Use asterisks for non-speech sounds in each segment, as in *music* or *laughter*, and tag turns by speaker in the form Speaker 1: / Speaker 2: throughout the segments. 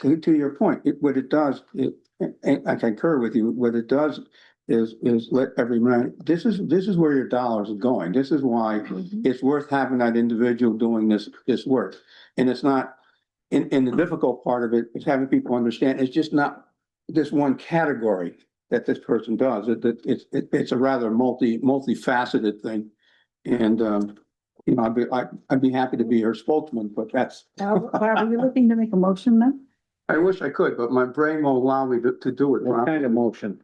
Speaker 1: to, to your point, it, what it does, it, and I concur with you, what it does is, is let every man, this is, this is where your dollars are going. This is why
Speaker 2: Mm-hmm.
Speaker 1: it's worth having that individual doing this, this work. And it's not, and, and the difficult part of it is having people understand, it's just not this one category that this person does. It, it, it's- it, it's a rather multi, multifaceted thing. And, um, you know, I'd be, I'd, I'd be happy to be her spokesman, but that's,
Speaker 2: Are are we looking to make a motion then?
Speaker 1: I wish I could, but my brain won't allow me to, to do it.
Speaker 3: What
Speaker 1: Rob.
Speaker 3: kind of motion?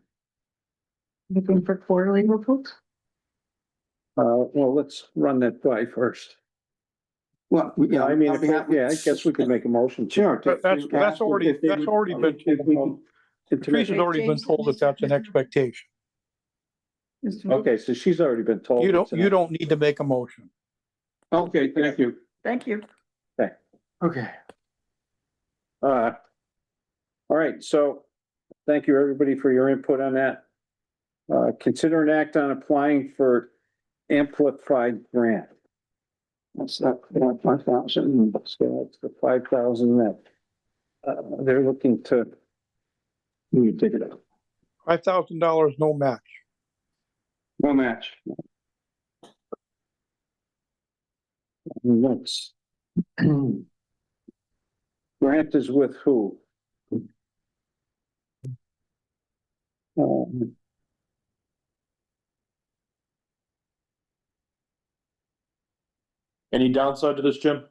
Speaker 2: Looking for quarterly reports?
Speaker 3: Uh, well, let's run that by first.
Speaker 1: Well, we- yeah,
Speaker 3: I mean,
Speaker 1: I'll be happy-
Speaker 3: yeah, I guess we
Speaker 1: *laughs*
Speaker 3: could make a motion. to-
Speaker 1: Sure. to-
Speaker 4: But that's- that's already-
Speaker 1: if they
Speaker 4: that's
Speaker 1: would-
Speaker 4: already been-
Speaker 1: if we could-
Speaker 3: to make-
Speaker 4: Teresa's already been told that that's an expectation.
Speaker 2: Mr.
Speaker 3: Okay, so she's already been told.
Speaker 4: You don't,
Speaker 3: it's an-
Speaker 4: you don't need to make a motion.
Speaker 1: Okay, thank you.
Speaker 2: Thank you.
Speaker 1: Okay.
Speaker 3: Uh, all right, so thank you, everybody, for your input on that. Uh, consider an act on applying for amplified grant.
Speaker 1: That's that, five thousand.
Speaker 3: So that's the five thousand that, uh, they're looking to,
Speaker 1: You take it out.
Speaker 4: Five thousand dollars, no match.
Speaker 1: No match.
Speaker 3: *clears throat* that's. Grant is with who? Um,
Speaker 5: Any downside to this, Jim?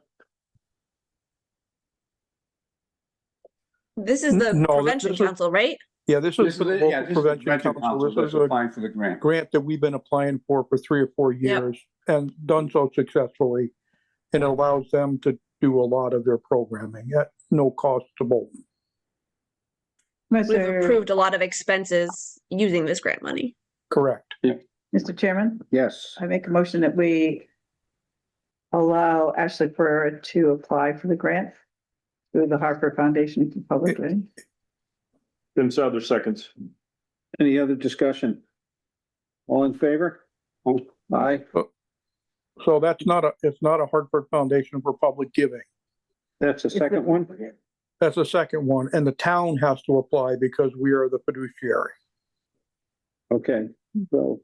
Speaker 6: This is
Speaker 4: N-
Speaker 6: the
Speaker 4: no, th-
Speaker 6: prevention
Speaker 4: this is-
Speaker 6: council, right?
Speaker 4: Yeah, this
Speaker 1: This
Speaker 4: is
Speaker 1: is,
Speaker 4: the
Speaker 1: yeah,
Speaker 4: local
Speaker 1: this is the
Speaker 4: prevention
Speaker 1: convention
Speaker 4: council.
Speaker 1: council
Speaker 4: This
Speaker 1: that's
Speaker 4: is a
Speaker 1: applying for the grant.
Speaker 4: grant that we've been applying for for three or four years and done so successfully. And it allows them to do a lot of their programming at no cost to Bolton.
Speaker 6: We've
Speaker 2: Mr.
Speaker 6: approved a lot of expenses using this grant money.
Speaker 4: Correct.
Speaker 2: Mr. Chairman,
Speaker 3: Yes.
Speaker 2: I make a motion that we allow Ashley Pereira to apply for the grant through the Harper Foundation for Public Learning.
Speaker 5: Jim Souther seconds.
Speaker 3: Any other discussion? All in favor? Aye.
Speaker 4: So that's not a, it's not a Hartford Foundation for Public Giving.
Speaker 3: That's the second one?
Speaker 4: That's the second one. And the town has to apply because we are the fiduciary.
Speaker 3: Okay, so,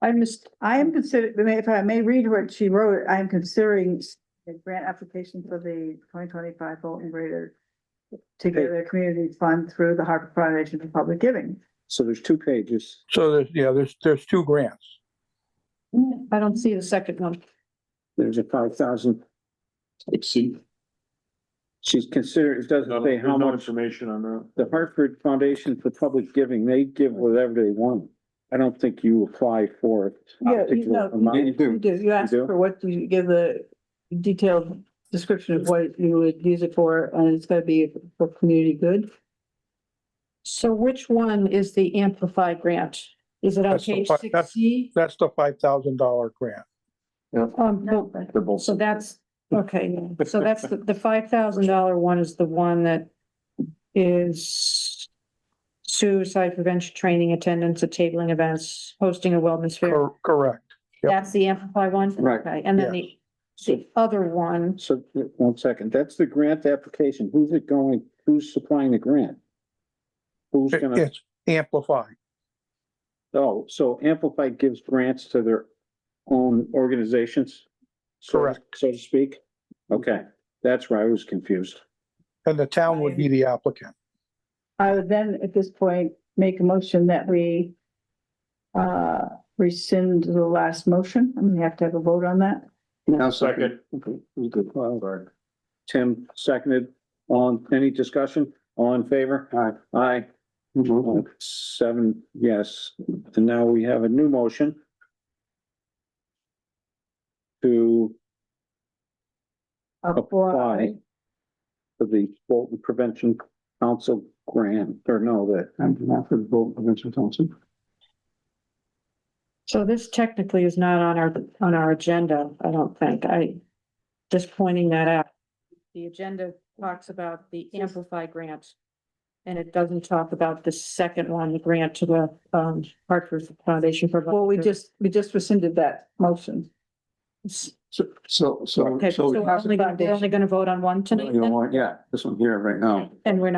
Speaker 2: I missed, I am consider if I may read what she wrote, I am considering a grant application for the twenty twenty-five Bolton Greater Together Community Fund through the Harper Foundation for Public Giving.
Speaker 3: so there's two pages.
Speaker 4: So there's, yeah, there's, there's two grants.
Speaker 2: I don't see the second one.
Speaker 3: There's a five thousand.
Speaker 5: Exceed.
Speaker 3: She's considered, it doesn't say how much.
Speaker 5: information on that.
Speaker 3: The Hartford Foundation for Public Giving, they give whatever they want. I don't think you apply for it.
Speaker 2: Yeah, you know,
Speaker 3: Amount.
Speaker 2: you do, you do. You ask
Speaker 3: do?
Speaker 2: for what you give the detailed description of what you would use it for, and it's gonna be for community good.
Speaker 7: So which one is the amplified grant? Is it on
Speaker 4: That's the
Speaker 7: page
Speaker 4: fi- that's-
Speaker 7: six C?
Speaker 4: That's the five thoand dollar grant.
Speaker 7: Um,
Speaker 5: They're both.
Speaker 7: so that's, okay, so that's the, the five thousand dollar one is the one that is suicide prevention training, attendance at tabling events, hosting a wellness fair.
Speaker 4: Cor- Correct. Yep.
Speaker 7: That's the amplified one?
Speaker 3: Right.
Speaker 7: Okay, And then the, the other one,
Speaker 3: So, one second, that's the grant application. Who's it going, who's supplying the grant? Who's
Speaker 4: It-
Speaker 3: gonna,
Speaker 4: It's amplified.
Speaker 3: oh, so Amplify gives grants to their own organizations? so-
Speaker 4: Correct.
Speaker 3: So to speak? Okay, that's where I was confused.
Speaker 4: And the town would be the applicant.
Speaker 2: I would then, at this point, make a motion that we uh, rescind the last motion, and we have to have a vote on that.
Speaker 1: Now,
Speaker 5: Second.
Speaker 1: Okay, we good.
Speaker 3: Well, Tim seconded. On, any discussion? All in favor? Aye. Mm-hmm. Aye.
Speaker 1: Mhm.
Speaker 3: Seven, yes. And now we have a new motion to
Speaker 2: Uh,
Speaker 3: apply for the Bolton Prevention Council grant, or no, the
Speaker 1: I'm not for the vote, Mr. Thompson.
Speaker 7: so this technically is not on our, on our agenda, I don't think. I, just pointing that out. The agenda talks about the Amplify grant. And it doesn't talk about the second one, the grant to the um Hartford Foundation for.
Speaker 2: Well, we just, we just rescinded that motion.
Speaker 7: S-
Speaker 3: So, so, so.
Speaker 7: Okay, so uh,
Speaker 3: so-
Speaker 7: we're only, we're only gonna vote on one tonight
Speaker 3: You don't
Speaker 7: then?
Speaker 3: want- Yeah, this one here right now.
Speaker 7: and we're not